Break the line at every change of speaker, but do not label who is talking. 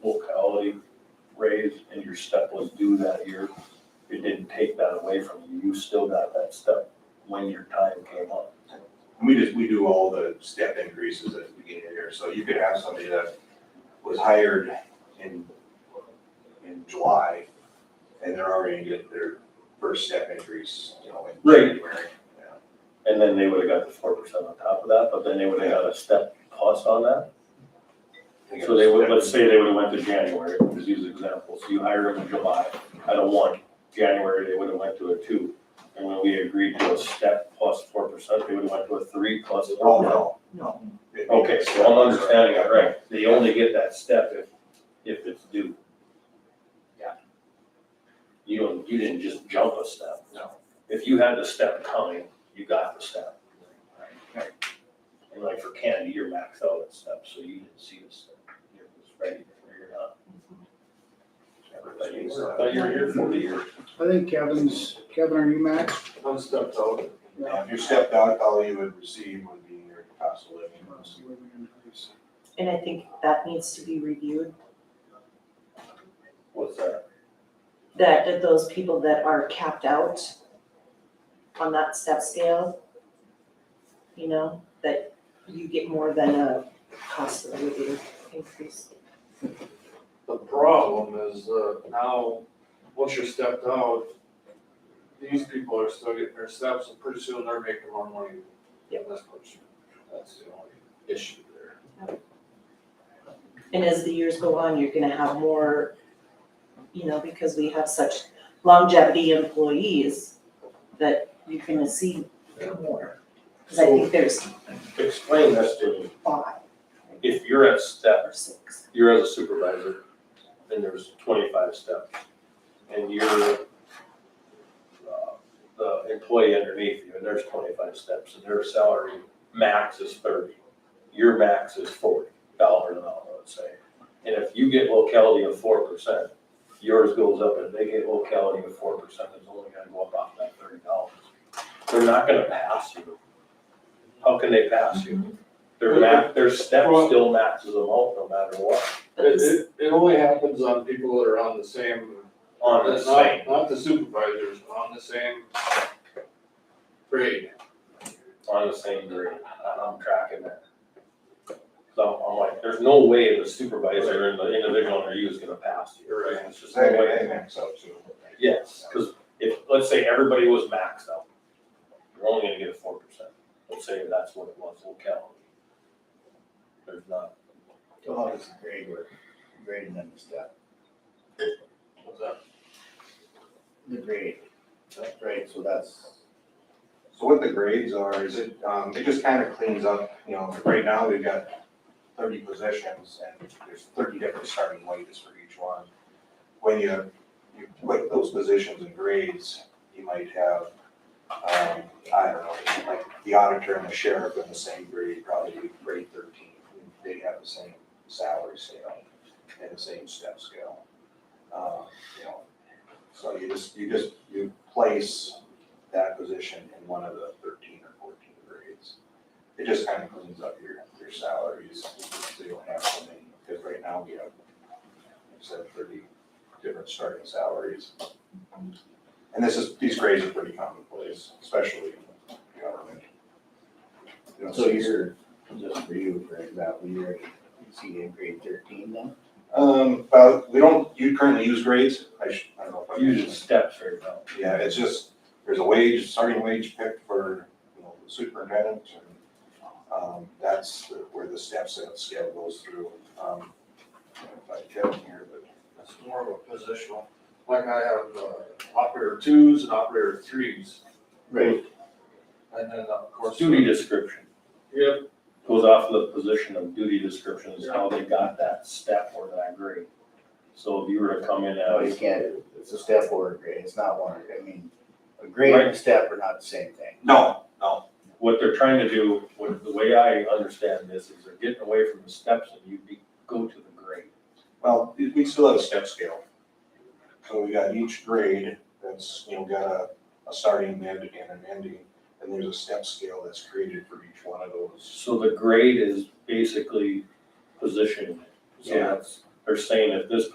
your step was due that year, it didn't take that away from you, you still got that step when your time came up.
And We just, we do all the step increases at the beginning of the year, so you could have somebody that was hired in, in July, and they're already gonna get their first step increase, you know, in
Right.
January. Yeah.
And then they would have got the four percent on top of that, but then they would have got a step plus on that. So they would, let's say they would have went to January, just use an example, so you hire them in July at a one, January, they would have went to a two. And when we agreed to a step plus four percent, they would have went to a three plus
Oh,
four.
no.
No.
It'd be-
Okay, so I'm understanding it right, they only get that step if, if it's due.
Yeah.
You don't, you didn't just jump a step.
No.
If you had the step coming, you got the step. And like for Canada, you're maxed out at step, so you didn't see the step, you're just ready, you're not. Everybody, but you're here for the year.
I think Kevin's, Kevin, are you max?
One step out.
Now, If you stepped out, all you would receive would be your cost of living.
And I think that needs to be reviewed,
What's that?
that, that those people that are capped out on that step scale, you know, that you get more than a cost of living increase.
The problem is, uh, now, once you're stepped out, these people are still getting their steps, and pretty soon they're making more money than this person. That's the only issue there.
And as the years go on, you're gonna have more, you know, because we have such longevity employees that you're gonna see more. Cause I think there's
Explain this to me.
five
If you're at step
or six.
you're as a supervisor, and there's twenty-five steps, and you're uh, the employee underneath you, and there's twenty-five steps, and their salary max is thirty. Your max is forty dollars an hour, let's say. And if you get locality of four percent, yours goes up, and they get locality of four percent, it's only gonna go up off that thirty dollars. They're not gonna pass you. How can they pass you? Their max, their step still maxes them out no matter what.
But
It,
this,
it, it only happens on people that are on the same.
on the
not-
same,
Not the supervisors, on the same grade.
on the same grade, I- I'm tracking that. So I'm like, there's no way the supervisor and the individual under you is gonna pass you.
You're right.
It's just no
That way
way.
they max out too.
Yes, cause if, let's say everybody was maxed out, you're only gonna get a four percent, let's say that's what it was, locality. There's not,
So how does the grade work, grading them is that
What's that?
the grade, that's right, so that's,
So what the grades are, is it, um, it just kind of cleans up, you know, right now we've got thirty positions and there's thirty different starting wages for each one. When you, you put those positions and grades, you might have, um, I don't know, like the auditor and the sheriff in the same grade, probably grade thirteen. They have the same salary scale and the same step scale. Uh, you know, so you just, you just, you place that position in one of the thirteen or fourteen grades. It just kind of cleans up your, your salaries, so you don't have so many, because right now we have, like I said, thirty different starting salaries. And this is, these grades are pretty commonplace, especially in government. You know,
so you're, just for you, for example, you're, you see in grade thirteen then?
Um, well, we don't, you currently use grades, I should, I don't know if I mentioned.
using steps right now.
Yeah, it's just, there's a wage, starting wage picked for, you know, the superintendent, and, um, that's the- where the step set scale goes through. Um, I don't know If I can here, but
It's more of a positional, like I have, uh, operator twos and operator threes.
Right.
And then, of course.
Duty description
Yep,
goes off of the position of duty description is how they got that step or that grade. So if you were to come in
No, you
as,
can't, it's a step or a grade, it's not one, I mean, a grade and a step are not the same thing.
no, no,
what they're trying to do, what, the way I understand this is they're getting away from the steps and you be, go to the grade.
well, we we still have a step scale. So we got each grade that's, you know, got a, a starting, mid, and an ending, and there's a step scale that's created for each one of those.
So the grade is basically positioning. So
Yeah.
that's, they're saying if this